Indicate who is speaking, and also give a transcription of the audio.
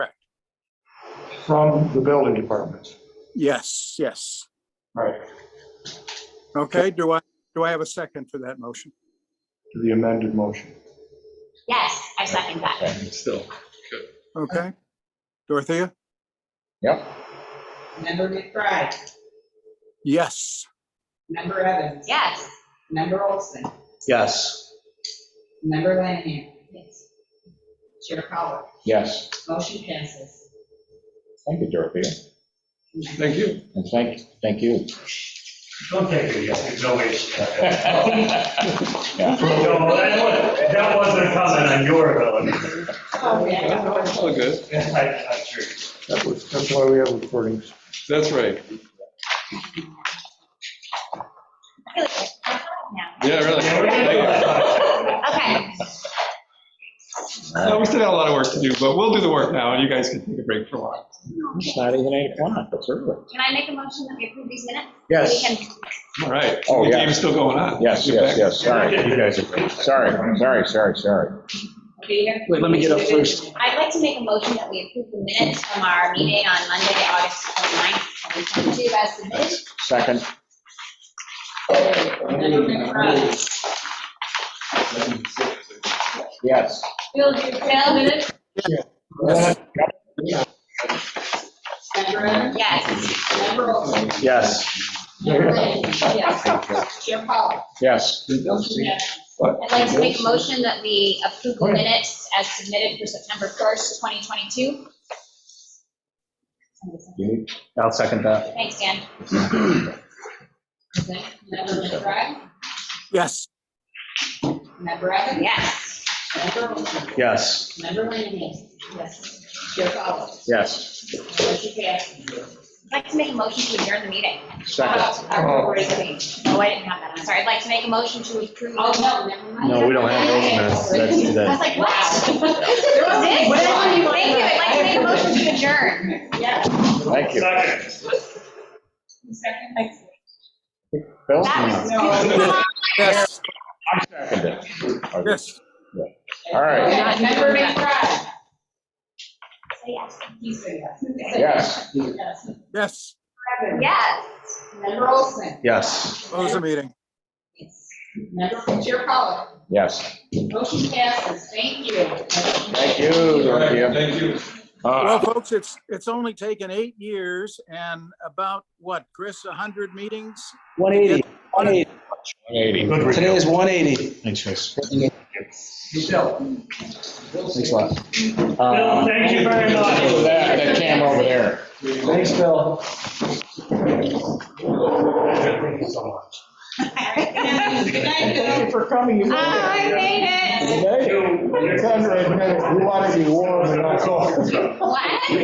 Speaker 1: from the building departments.
Speaker 2: Yes, yes.
Speaker 1: Right.
Speaker 2: Okay, do I, do I have a second for that motion?
Speaker 1: To the amended motion.
Speaker 3: Yes, I second that.
Speaker 4: Still.
Speaker 2: Okay. Dorothea?
Speaker 4: Yep.
Speaker 5: Member McBride,
Speaker 2: Yes.
Speaker 5: member Evans,
Speaker 3: Yes.
Speaker 5: member Olson,
Speaker 4: Yes.
Speaker 5: member Lanahan. Chair Power,
Speaker 4: Yes.
Speaker 5: motion passes.
Speaker 4: Thank you, Dorothea.
Speaker 6: Thank you.
Speaker 4: And thank, thank you.
Speaker 7: Don't take it, yes, it's always.
Speaker 4: Yeah.
Speaker 7: No, that wa- that wasn't a comment on your ability.
Speaker 5: Oh, yeah.
Speaker 6: All good.
Speaker 7: I- I'm sure.
Speaker 1: That was, that's why we have recordings.
Speaker 6: That's right.
Speaker 3: I feel like I'm fine now.
Speaker 6: Yeah, really. Thank you.
Speaker 3: Okay,
Speaker 6: No,
Speaker 4: Uh,
Speaker 6: we still got a lot of work to do, but we'll do the work now and you guys can take a break for a while.
Speaker 4: It's not even eight o'clock, it's early.
Speaker 3: can I make a motion that we approve these minutes?
Speaker 4: Yes.
Speaker 3: We can-
Speaker 6: All right.
Speaker 4: Oh,
Speaker 6: The
Speaker 4: yeah.
Speaker 6: game's still going on.
Speaker 4: Yes,
Speaker 6: Get
Speaker 4: yes,
Speaker 6: back.
Speaker 4: yes, sorry, you guys are, sorry, sorry, sorry, sorry.
Speaker 5: Wait, let me get up first.
Speaker 3: I'd like to make a motion that we approve the minutes from our meeting on Monday, August 29th, 2022, as submitted.
Speaker 4: Second,
Speaker 5: Member McBride,
Speaker 4: yes.
Speaker 3: Bill Dupail?
Speaker 5: member Evans,
Speaker 3: Yes.
Speaker 5: member Olson,
Speaker 4: Yes.
Speaker 5: member Lanahan. Yes. Chair Power,
Speaker 4: Yes,
Speaker 5: motion passes.
Speaker 3: I'd like to make a motion that we approve the minutes as submitted for September 1st, 2022.
Speaker 4: I'll second that.
Speaker 3: Thanks, Dan.
Speaker 5: Member McBride,
Speaker 2: Yes.
Speaker 5: member Evans,
Speaker 3: Yes.
Speaker 5: member Olson,
Speaker 4: Yes.
Speaker 5: member Lanahan. Yes. Chair Power,
Speaker 4: Yes,
Speaker 5: motion passes.
Speaker 3: I'd like to make a motion to adjourn the meeting.
Speaker 4: second.
Speaker 5: Our board is meeting.
Speaker 3: Oh, I didn't have that. I'm sorry. I'd like to make a motion to approve.
Speaker 5: Oh, no, never mind.
Speaker 4: No, we don't have those minutes, that's
Speaker 3: I
Speaker 4: today.
Speaker 3: was like, what? There was it?
Speaker 5: What else do you want?
Speaker 3: Thank you. I'd like to make a motion to adjourn.
Speaker 5: Yeah.
Speaker 4: Thank you.
Speaker 7: Second.
Speaker 5: Second.
Speaker 4: Bill?
Speaker 3: That was.
Speaker 2: Yes.
Speaker 4: Seconded. Okay.
Speaker 2: Yes.
Speaker 4: All right,
Speaker 5: Okay, Member McBride.
Speaker 3: Say Yes.
Speaker 5: He said yes.
Speaker 4: yes,
Speaker 5: Yes.
Speaker 2: Yes.
Speaker 5: Evans.
Speaker 3: Yes.
Speaker 5: Member Olson.
Speaker 4: yes,
Speaker 2: Close the meeting.
Speaker 5: Member Chair Pollak.
Speaker 4: yes.
Speaker 5: Motion passes. Thank you.
Speaker 4: Thank you,
Speaker 6: All right,
Speaker 4: Dorothea.
Speaker 6: Thank you.
Speaker 2: Well,
Speaker 4: Ah,
Speaker 2: folks, it's, it's only taken eight years and about, what, Chris, 100 meetings?
Speaker 8: 180, 180.
Speaker 4: 180.
Speaker 7: Good review.
Speaker 8: Today is 180.
Speaker 4: Thanks, Chris.
Speaker 8: Thanks a lot.
Speaker 7: Bill, thank you very much.
Speaker 4: That, that camera over there.
Speaker 8: Thanks, Bill.
Speaker 7: So much.
Speaker 5: Good night. Good night, Bill.
Speaker 8: Thank you for coming. You made it.
Speaker 3: I made it.
Speaker 8: You made it. It's under a minute. You wanted to be warm and not cold.
Speaker 3: What?